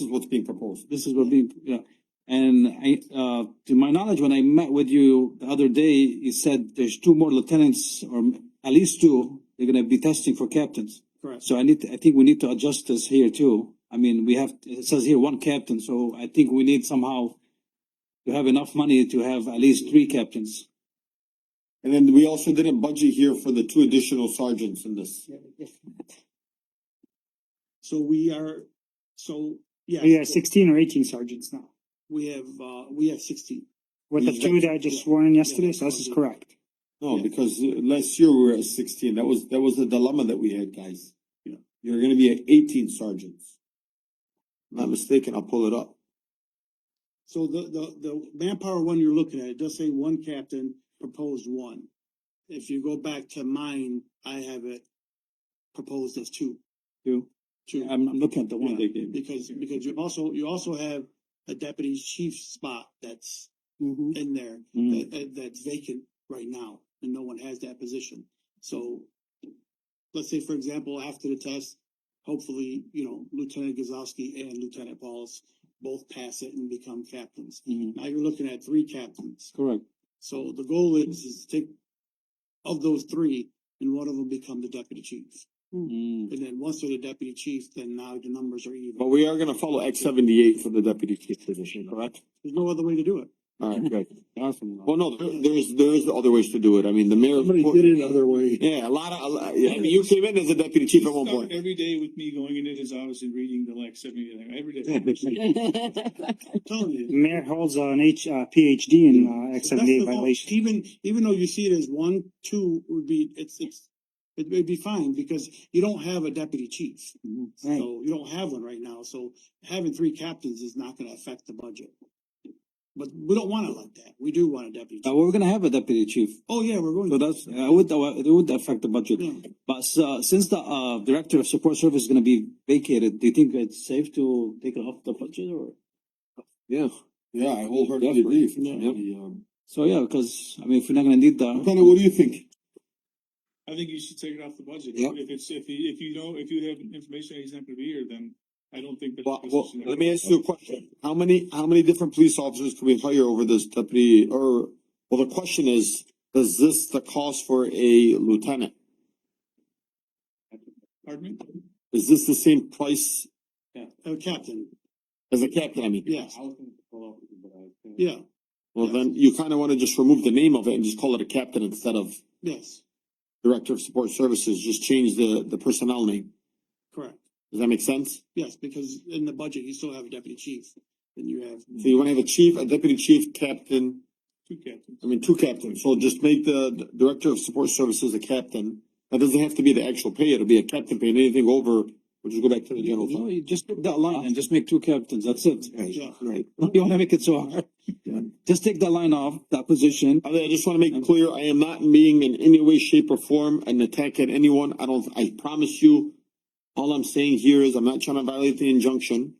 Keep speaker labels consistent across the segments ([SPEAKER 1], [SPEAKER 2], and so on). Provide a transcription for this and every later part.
[SPEAKER 1] This is what's being proposed.
[SPEAKER 2] this is what being, yeah. And I, uh, to my knowledge, when I met with you the other day, you said there's two more lieutenants or at least two, they're gonna be testing for captains.
[SPEAKER 1] Correct.
[SPEAKER 2] So I need, to- I think we need to adjust this here too. I mean, we have, it says here one captain, so I think we need somehow to have enough money to have at least three captains.
[SPEAKER 1] And then we also did a budget here for the two additional sergeants in this.
[SPEAKER 3] So we are, so, yeah.
[SPEAKER 4] We have sixteen or eighteen sergeants now,
[SPEAKER 3] We have, uh, we have sixteen.
[SPEAKER 4] with the
[SPEAKER 1] We've
[SPEAKER 4] two
[SPEAKER 1] got-
[SPEAKER 4] that I just sworn in yesterday, so this is correct.
[SPEAKER 1] No,
[SPEAKER 3] Yeah.
[SPEAKER 1] because uh, last year we were at sixteen. That was, that was the dilemma that we had, guys.
[SPEAKER 3] Yeah.
[SPEAKER 1] You're gonna be at eighteen sergeants. Not mistaken, I'll pull it up.
[SPEAKER 3] So the, the, the manpower one you're looking at, it does say one captain, proposed one. If you go back to mine, I have it proposed as two.
[SPEAKER 2] Two.
[SPEAKER 3] Two.
[SPEAKER 2] I'm, I'm looking at the one
[SPEAKER 3] Yeah,
[SPEAKER 2] they gave.
[SPEAKER 3] Because, because you also, you also have a deputy chief spot that's
[SPEAKER 4] Mhm.
[SPEAKER 3] in there,
[SPEAKER 2] Mm.
[SPEAKER 3] that, that- that's vacant right now, and no one has that position. So, let's say, for example, after the test, hopefully, you know, Lieutenant Gazowski and Lieutenant Pauls both pass it and become captains.
[SPEAKER 2] Mhm.
[SPEAKER 3] Now you're looking at three captains.
[SPEAKER 2] Correct.
[SPEAKER 3] So the goal is, is to take of those three, and one of them become the deputy chief.
[SPEAKER 2] Mm.
[SPEAKER 3] And then once they're the deputy chief, then now the numbers are even.
[SPEAKER 1] But we are gonna follow X seventy-eight for the deputy chief position, correct?
[SPEAKER 3] There's no other way to do it.
[SPEAKER 1] Alright, good.
[SPEAKER 2] Awesome.
[SPEAKER 1] Well, no, there, there's, there's other ways to do it. I mean, the mayor.
[SPEAKER 3] it other way.
[SPEAKER 1] Yeah, a lot of, a lot- yeah, I mean, you came in as a deputy chief at one
[SPEAKER 5] Start
[SPEAKER 1] point.
[SPEAKER 5] Every day with me going into his office and reading the like seventy, every day.
[SPEAKER 3] I'm telling you.
[SPEAKER 4] Mayor holds an H, uh, PhD in, uh,
[SPEAKER 3] So that's
[SPEAKER 4] X seventy-eight
[SPEAKER 3] the vote.
[SPEAKER 4] violation.
[SPEAKER 3] Even, even though you see it as one, two would be, it's, it's, it would be fine because you don't have a deputy chief.
[SPEAKER 4] Right.
[SPEAKER 3] So you don't have one right now, so having three captains is not gonna affect the budget. But we don't want it like that. We do want a deputy.
[SPEAKER 2] Uh,
[SPEAKER 3] chief.
[SPEAKER 2] we're gonna have a deputy chief,
[SPEAKER 3] Oh, yeah, we're going.
[SPEAKER 2] so that's, uh, it would, it would affect the budget.
[SPEAKER 3] Yeah.
[SPEAKER 2] But uh, since the uh, director of support service is gonna be vacated, do you think it's safe to take it off the budget or?
[SPEAKER 1] Yeah, yeah, I wholeheartedly agree. The, um,
[SPEAKER 2] So yeah, because I mean, if we're not gonna need the,
[SPEAKER 1] Lieutenant, what do you think?
[SPEAKER 5] I think you should take it off the budget.
[SPEAKER 1] Yeah.
[SPEAKER 5] If it's, if you, if you know, if you have information that he's not gonna be here, then I don't think that.
[SPEAKER 1] Well, well, let me ask you a question. How many, how many different police officers can we hire over this deputy or, well, the question is, does this the cost for a lieutenant?
[SPEAKER 5] Pardon me?
[SPEAKER 1] Is this the same price
[SPEAKER 3] A captain,
[SPEAKER 1] as a captain? I mean,
[SPEAKER 3] yes, yeah,
[SPEAKER 1] well, then you kind of want to just remove the name of it and just call it a captain instead of
[SPEAKER 3] yes,
[SPEAKER 1] director of support services. Just change the, the personnel name.
[SPEAKER 3] correct.
[SPEAKER 1] Does that make sense?
[SPEAKER 3] Yes, because in the budget, you still have a deputy chief and you have,
[SPEAKER 1] So you want to have a chief, a deputy chief, captain,
[SPEAKER 5] Two captains.
[SPEAKER 1] I mean, two captains. So just make the d- director of support services a captain. That doesn't have to be the actual pay. It'll be a captain pay and anything over, we'll just go back to the general
[SPEAKER 2] no,
[SPEAKER 1] fund.
[SPEAKER 2] you just take that line and just make two captains, that's it.
[SPEAKER 3] yeah.
[SPEAKER 1] Right.
[SPEAKER 2] You wanna make it so hard? Just take that line off, that position.
[SPEAKER 1] I mean, I just want to make it clear, I am not being in any way, shape or form an attack at anyone. I don't, I promise you. All I'm saying here is I'm not trying to violate the injunction.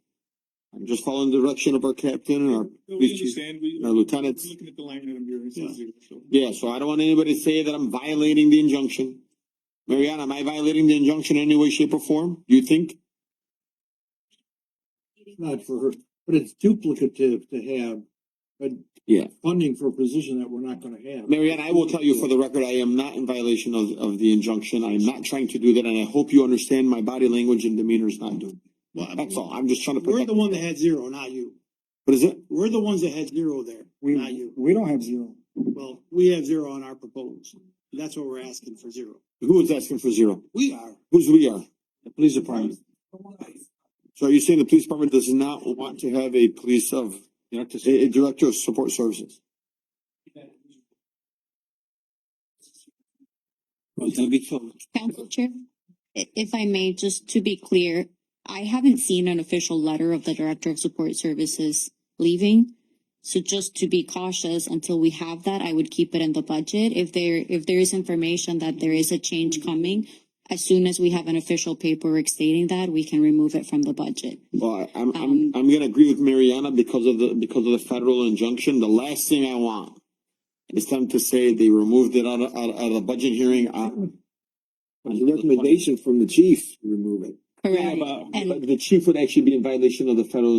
[SPEAKER 1] I'm just following the direction of our captain and our
[SPEAKER 5] No, We
[SPEAKER 1] police chief,
[SPEAKER 5] understand, we,
[SPEAKER 1] and our
[SPEAKER 5] we're
[SPEAKER 1] lieutenants.
[SPEAKER 5] looking at the line item here, it says zero, so.
[SPEAKER 1] Yeah, so I don't want anybody to say that I'm violating the injunction. Mariana, am I violating the injunction in any way, shape or form? Do you think?
[SPEAKER 6] not for her, but it's duplicative to have a
[SPEAKER 1] Yeah.
[SPEAKER 6] funding for a position that we're not gonna have.
[SPEAKER 1] Mariana, I will tell you for the record, I am not in violation of, of the injunction. I am not trying to do that, and I hope you understand my body language and demeanor is not doing.
[SPEAKER 3] Well, I mean,
[SPEAKER 1] That's all. I'm just trying to
[SPEAKER 3] We're
[SPEAKER 1] protect.
[SPEAKER 3] the one that had zero, not you.
[SPEAKER 1] What is it?
[SPEAKER 3] We're the ones that had zero there, not
[SPEAKER 4] We,
[SPEAKER 3] you.
[SPEAKER 4] we don't have zero.
[SPEAKER 3] Well, we have zero on our proposed. That's what we're asking for zero.
[SPEAKER 1] Who is asking for zero?
[SPEAKER 3] We are.
[SPEAKER 1] Who's we are?
[SPEAKER 2] The police department,
[SPEAKER 1] So are you saying the police department does not want to have a police of,
[SPEAKER 2] director,
[SPEAKER 1] a, a director of support services?
[SPEAKER 2] it'll be so.
[SPEAKER 7] Council Chair, i- if I may, just to be clear, I haven't seen an official letter of the Director of Support Services leaving. So just to be cautious until we have that, I would keep it in the budget. If there, if there is information that there is a change coming, as soon as we have an official paperwork stating that, we can remove it from the budget.
[SPEAKER 1] Well, I- I'm, I'm,
[SPEAKER 7] Um,
[SPEAKER 1] I'm gonna agree with Mariana because of the, because of the federal injunction. The last thing I want is them to say they removed it out of, out of, out of the budget hearing. uh,
[SPEAKER 6] recommendation from the chief, remove it.
[SPEAKER 7] correct?
[SPEAKER 1] but
[SPEAKER 7] And-
[SPEAKER 1] but the chief would actually be in violation of the federal